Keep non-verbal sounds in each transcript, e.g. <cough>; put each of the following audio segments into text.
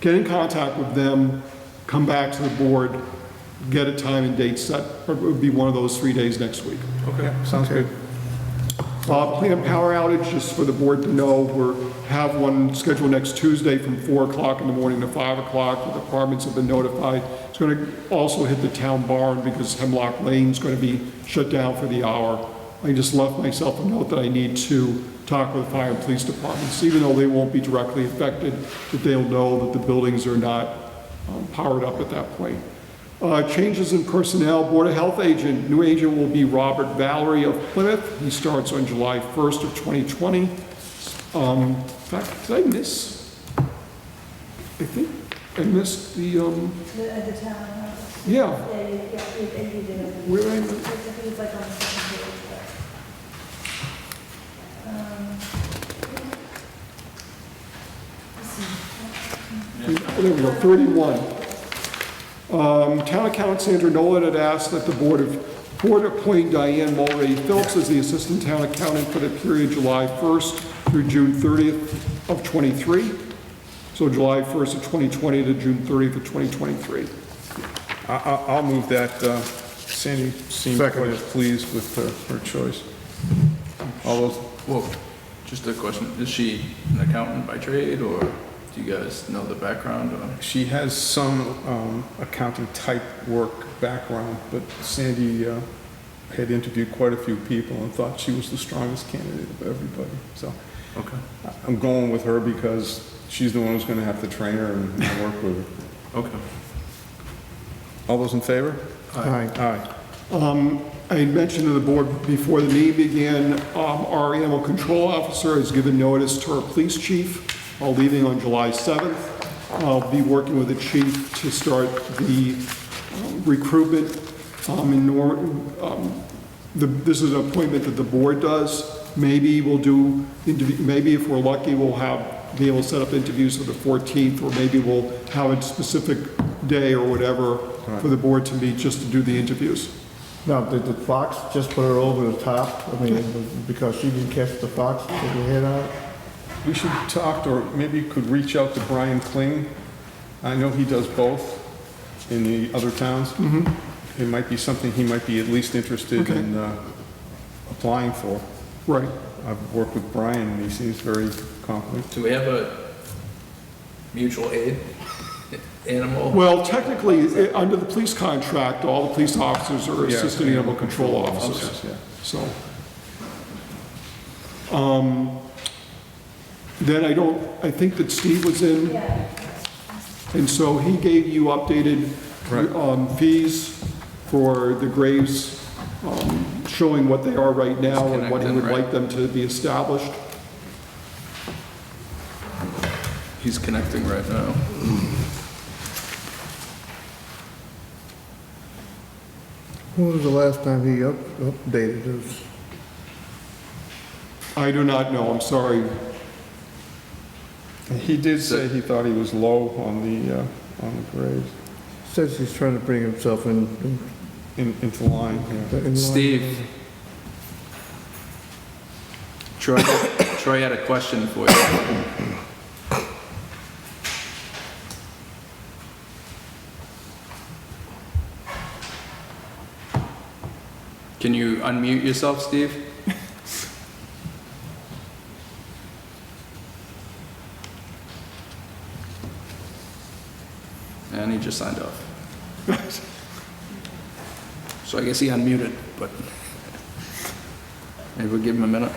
get in contact with them, come back to the board, get a time and date set, or it would be one of those three days next week. Okay, sounds good. Uh, Planned power outage, just for the board to know, we're, have one scheduled next Tuesday from 4 o'clock in the morning to 5 o'clock. The departments have been notified. It's going to also hit the town barn because Hemlock Lane's going to be shut down for the hour. I just left myself a note that I need to talk with the fire and police departments, even though they won't be directly affected, that they'll know that the buildings are not um, powered up at that point. Uh, Changes in personnel, Board of Health agent, new agent will be Robert Valerie of Plymouth. He starts on July 1st of 2020. Um, In fact, did I miss? I think I missed the, um, The, at the town office. yeah, Yeah, you, yeah, you, and you did it. Where I- It's- I think it's like on the second page, but, um, let's see. there we go, 31. Um, Town accountant Sandra Nolan had asked that the Board of, Board appoint Diane Mulready Phillips as the Assistant Town Accountant for the period July 1st through June 30th of '23. So July 1st of 2020 to June 30th of 2023. I, I, I'll move that, uh, Sandy seemed quite Second. pleased with her, her choice. All those, Well, just a question, is she an accountant by trade, or do you guys know the background on? she has some, um, accounting type work background, but Sandy, uh, had interviewed quite a few people and thought she was the strongest candidate of everybody, so. Okay, I- I'm going with her because she's the one who's gonna have to train her and work with her. okay. All those in favor? Aye. Aye. Um, I had mentioned to the board before the meeting began, um, our animal control officer has given notice to our police chief, uh, leaving on July 7th. I'll be working with the chief to start the um, recruitment um, in Norm, um, the- this is an appointment that the board does. Maybe we'll do, interview- maybe if we're lucky, we'll have, be able to set up interviews for the 14th, or maybe we'll have a specific day or whatever for the board to meet just to do the interviews. Now, did the fox just put her over the top? I mean, because she didn't catch the fox with her head out? We should talk, to- or maybe you could reach out to Brian Kling. I know he does both in the other towns. Mm-hmm. It might be something he might be at least interested in uh, applying for. Right. I've worked with Brian, and he seems very competent. Do we have a mutual aid <laughs> animal? Well, technically, i- under the police contract, all the police officers are Yeah. assistant animal control officers, Officers, yeah. so. Um, Then I don't, I think that Steve was in, Yeah, and so he gave you updated Right. um, fees for the graves, um, showing what they are right now and what he Disconnect them, would right? like them to be established. He's connecting right now. When was the last time he up- updated us? I do not know, I'm sorry. He did say he thought he was low on the, uh, on the grades, Says he's trying to bring himself in. in- in- into line, yeah. in line. Steve. Troy, Troy had a question for you. Can you unmute yourself, Steve? And he just signed off. So I guess he unmuted, but maybe we'll give him a minute.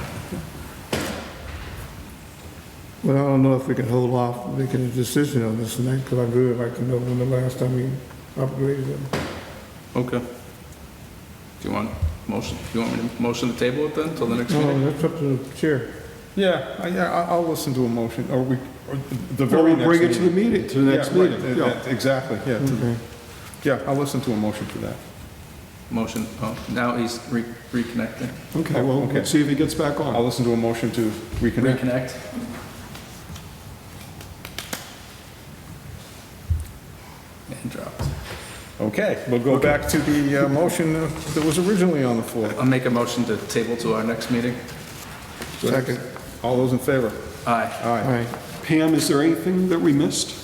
Well, I don't know if we can hold off making a decision on this tonight, because I'd really like to know when the last time we upgraded him. Okay. Do you want motion, do you want me to motion to table it then till the next Oh, meeting? that's up to the chair. Yeah, I- yeah, I- I'll listen to a motion, or we, or the Or very we'll next meeting. bring it to the meeting, to the next Yeah, right, meeting, uh, yeah. uh, Exactly, yeah. to- Okay. Yeah, I'll listen to a motion for that. Motion, oh, now he's re- reconnecting. Okay, well, Okay. let's see if he gets back on. I'll listen to a motion to reconnect. Reconnect. And dropped. Okay, we'll go back to the uh, motion that was originally on the floor. I'll make a motion to table to our next meeting. Second. All those in favor? Aye. Aye. Aye. Pam, is there anything that we missed?